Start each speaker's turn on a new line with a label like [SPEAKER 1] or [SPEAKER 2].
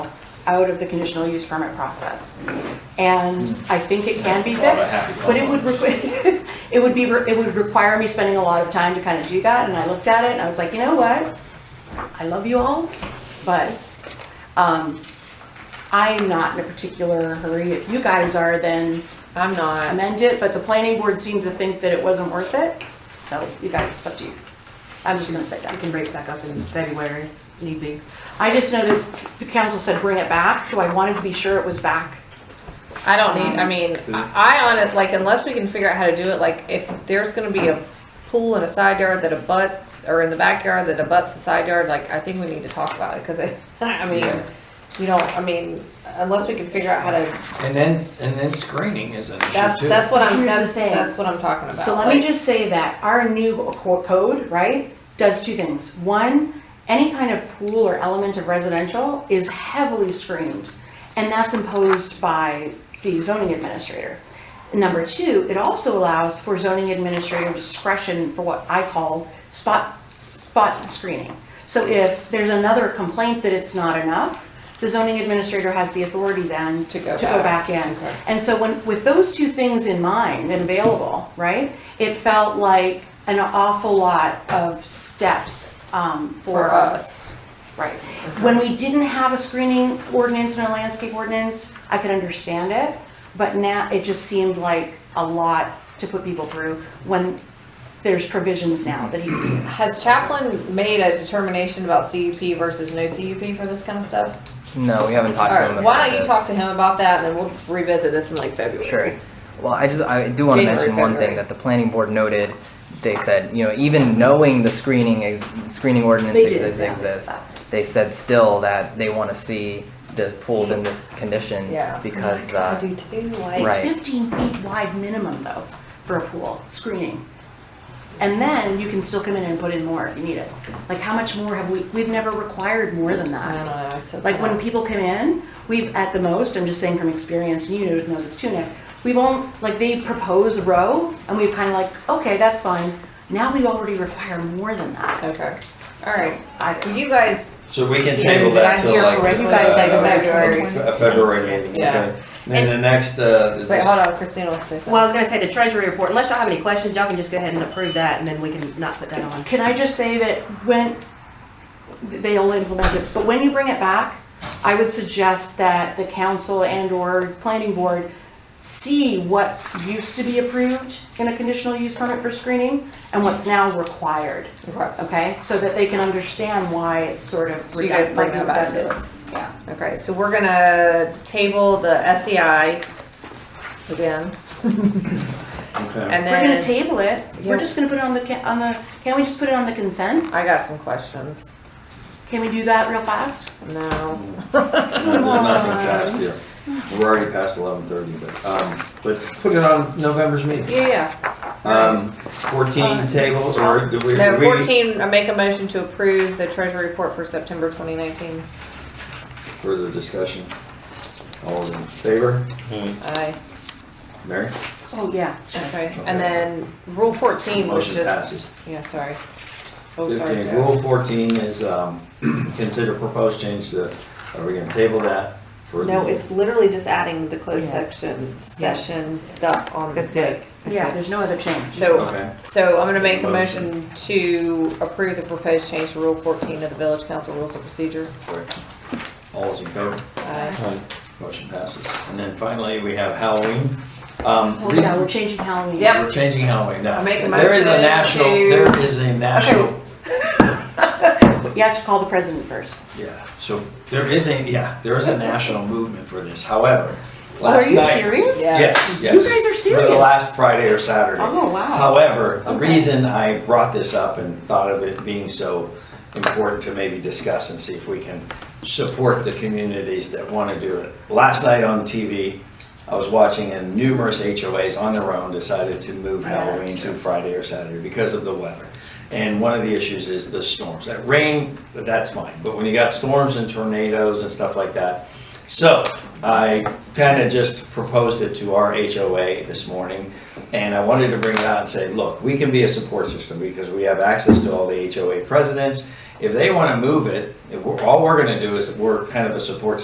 [SPEAKER 1] out of the conditional use permit process. And I think it can be fixed, but it would, requ- it would be, re- it would require me spending a lot of time to kind of do that, and I looked at it, and I was like, you know what? I love you all, but, um, I'm not in a particular hurry. If you guys are, then
[SPEAKER 2] I'm not.
[SPEAKER 1] amend it, but the planning board seemed to think that it wasn't worth it, so you guys, it's up to you. I'm just gonna say
[SPEAKER 2] We
[SPEAKER 1] that.
[SPEAKER 2] can break back up in February, if need be.
[SPEAKER 1] I just know that the council said bring it back, so I wanted to be sure it was back.
[SPEAKER 3] I don't need, I mean, I I on it, like, unless we can figure out how to do it, like, if there's gonna be a pool in a side yard that abuts, or in the backyard that abuts the side yard, like, I think we need to talk about it, cause I, I mean, you know, I mean, unless we can figure out how to,
[SPEAKER 4] And then, and then screening is an
[SPEAKER 3] that's,
[SPEAKER 4] issue too.
[SPEAKER 3] that's what I'm,
[SPEAKER 1] Here's the
[SPEAKER 3] that's,
[SPEAKER 1] thing.
[SPEAKER 3] that's what I'm talking about.
[SPEAKER 1] So let me
[SPEAKER 3] like-
[SPEAKER 1] just say that our new co- code, right, does two things. One, any kind of pool or element of residential is heavily screened, and that's imposed by the zoning administrator. Number two, it also allows for zoning administrator discretion for what I call spot, spot screening. So if there's another complaint that it's not enough, the zoning administrator has the authority then
[SPEAKER 3] To go
[SPEAKER 1] To go
[SPEAKER 3] back.
[SPEAKER 1] back in.
[SPEAKER 3] Okay.
[SPEAKER 1] And so when, with those two things in mind and available, right, it felt like an awful lot of steps um, for.
[SPEAKER 3] For us.
[SPEAKER 1] Right. When we didn't have a screening ordinance and a landscape ordinance, I could understand it, but now it just seemed like a lot to put people through when there's provisions now that you can do.
[SPEAKER 3] Has Chaplin made a determination about CUP versus no CUP for this kind of stuff?
[SPEAKER 5] No, we haven't talked to him
[SPEAKER 3] Alright,
[SPEAKER 5] about
[SPEAKER 3] why don't you
[SPEAKER 5] this.
[SPEAKER 3] talk to him about that, and then we'll revisit this in like
[SPEAKER 5] Sure.
[SPEAKER 3] February.
[SPEAKER 5] Well, I just, I do want to
[SPEAKER 3] January,
[SPEAKER 5] mention one
[SPEAKER 3] February.
[SPEAKER 5] thing that the planning board noted. They said, you know, even knowing the screening, ex- screening ordinance
[SPEAKER 1] They did,
[SPEAKER 5] exis-
[SPEAKER 1] yeah, they
[SPEAKER 5] exists,
[SPEAKER 1] said
[SPEAKER 5] they said still that they want to see the pools in this condition.
[SPEAKER 3] Yeah.
[SPEAKER 5] Because, uh,
[SPEAKER 3] do too,
[SPEAKER 1] It's
[SPEAKER 5] Right.
[SPEAKER 1] fifteen feet wide minimum though, for a pool, screening. And then you can still come in and put in more if you need it. Like, how much more have we, we've never required more than
[SPEAKER 3] I don't
[SPEAKER 1] that.
[SPEAKER 3] know, I said
[SPEAKER 1] Like, when
[SPEAKER 3] that.
[SPEAKER 1] people come in, we've, at the most, I'm just saying from experience, and you know know this too, Nick, we've only, like, they propose a row, and we've kind of like, okay, that's fine. Now we already require more than that.
[SPEAKER 3] Okay, all right.
[SPEAKER 1] I don't know.
[SPEAKER 3] Well, You guys,
[SPEAKER 6] So we can
[SPEAKER 2] So
[SPEAKER 6] table
[SPEAKER 2] did I
[SPEAKER 6] that till
[SPEAKER 2] hear
[SPEAKER 6] like.
[SPEAKER 2] correctly?
[SPEAKER 6] uh,
[SPEAKER 3] You guys like
[SPEAKER 6] uh,
[SPEAKER 3] February.
[SPEAKER 6] Fe- A February meeting,
[SPEAKER 3] Yeah.
[SPEAKER 6] okay. And then the next, uh. is
[SPEAKER 3] wait,
[SPEAKER 6] this-
[SPEAKER 3] hold on, Christina wants to say
[SPEAKER 2] Well, I
[SPEAKER 3] something.
[SPEAKER 2] was gonna say the treasury report, unless y'all have any questions, y'all can just go ahead and approve that and then we can not put that on.
[SPEAKER 1] Can I just say that when, they'll implement it, but when you bring it back, I would suggest that the council and/or planning board see what used to be approved in a conditional use permit for screening and what's now required,
[SPEAKER 3] Okay.
[SPEAKER 1] okay? So that they can understand why it's sort of.
[SPEAKER 3] So you guys bring that back to
[SPEAKER 1] redundant.
[SPEAKER 3] us.
[SPEAKER 1] Yeah.
[SPEAKER 3] Okay, so we're gonna table the SEI again,
[SPEAKER 6] Okay.
[SPEAKER 3] and
[SPEAKER 1] We're gonna
[SPEAKER 3] then,
[SPEAKER 1] table it,
[SPEAKER 3] Yeah.
[SPEAKER 1] we're just gonna put it on the, ca- on the, can we just put it on the consent?
[SPEAKER 3] I got some questions.
[SPEAKER 1] Can we do that real fast?
[SPEAKER 3] No,
[SPEAKER 6] Mm. No, There's nothing fast here. We're already past eleven thirty, but, um, but put it on November's meeting.
[SPEAKER 3] yeah, yeah.
[SPEAKER 6] Um, fourteen table or do we?
[SPEAKER 3] No,
[SPEAKER 6] we-
[SPEAKER 3] fourteen, I make a motion to approve the treasury report for September twenty nineteen.
[SPEAKER 6] Further discussion. All in favor?
[SPEAKER 3] Aye,
[SPEAKER 6] Mary?
[SPEAKER 1] Oh, yeah.
[SPEAKER 3] okay, and then rule fourteen was
[SPEAKER 6] Motion
[SPEAKER 3] just,
[SPEAKER 6] passes.
[SPEAKER 3] yeah, sorry. Oh, sorry,
[SPEAKER 6] Fifteen,
[SPEAKER 3] Joe.
[SPEAKER 6] rule fourteen is, um, consider proposed change to, are we gonna table that for?
[SPEAKER 3] No, it's literally just adding the closed
[SPEAKER 2] Yeah.
[SPEAKER 3] section, session stuff on.
[SPEAKER 2] That's it.
[SPEAKER 3] That's
[SPEAKER 1] Yeah,
[SPEAKER 3] it.
[SPEAKER 1] there's no other change.
[SPEAKER 6] Okay.
[SPEAKER 3] So, so I'm gonna make a
[SPEAKER 6] Motion.
[SPEAKER 3] motion to approve the proposed change to Rule 14 of the Village Council Rules of Procedure.
[SPEAKER 6] All is in favor?
[SPEAKER 3] Uh,
[SPEAKER 6] Motion passes. And then finally, we have Halloween. Um,
[SPEAKER 1] Oh,
[SPEAKER 6] reason-
[SPEAKER 1] Yeah, we're changing Halloween.
[SPEAKER 3] Yep.
[SPEAKER 6] We're changing Halloween now.
[SPEAKER 3] I make a
[SPEAKER 6] There is
[SPEAKER 3] motion
[SPEAKER 6] a national,
[SPEAKER 3] to-
[SPEAKER 6] there is a national,
[SPEAKER 1] You have to call the president first.
[SPEAKER 6] yeah, so there is a, yeah, there is a national movement for this. However,
[SPEAKER 1] Oh, Are
[SPEAKER 6] last
[SPEAKER 1] you
[SPEAKER 6] night.
[SPEAKER 1] serious?
[SPEAKER 3] Yeah.
[SPEAKER 6] Yes, yes.
[SPEAKER 1] You guys are
[SPEAKER 6] For the
[SPEAKER 1] serious.
[SPEAKER 6] last Friday or Saturday.
[SPEAKER 1] Oh, wow.
[SPEAKER 6] However, the
[SPEAKER 1] Okay.
[SPEAKER 6] reason I brought this up and thought of it being so important to maybe discuss and see if we can support the communities that want to do it. Last night on TV, I was watching and numerous HOAs on their own decided to move
[SPEAKER 1] Yeah, that's
[SPEAKER 6] Halloween to Friday or Saturday because of the weather. And one of the issues is the storms. That rain, that's fine, but when you got storms and tornadoes and stuff like that. So I kind of just proposed it to our HOA this morning. And I wanted to bring it out and say, look, we can be a support system because we have access to all the HOA presidents. If they want to move it, if we're- all we're going to do is we're kind of a support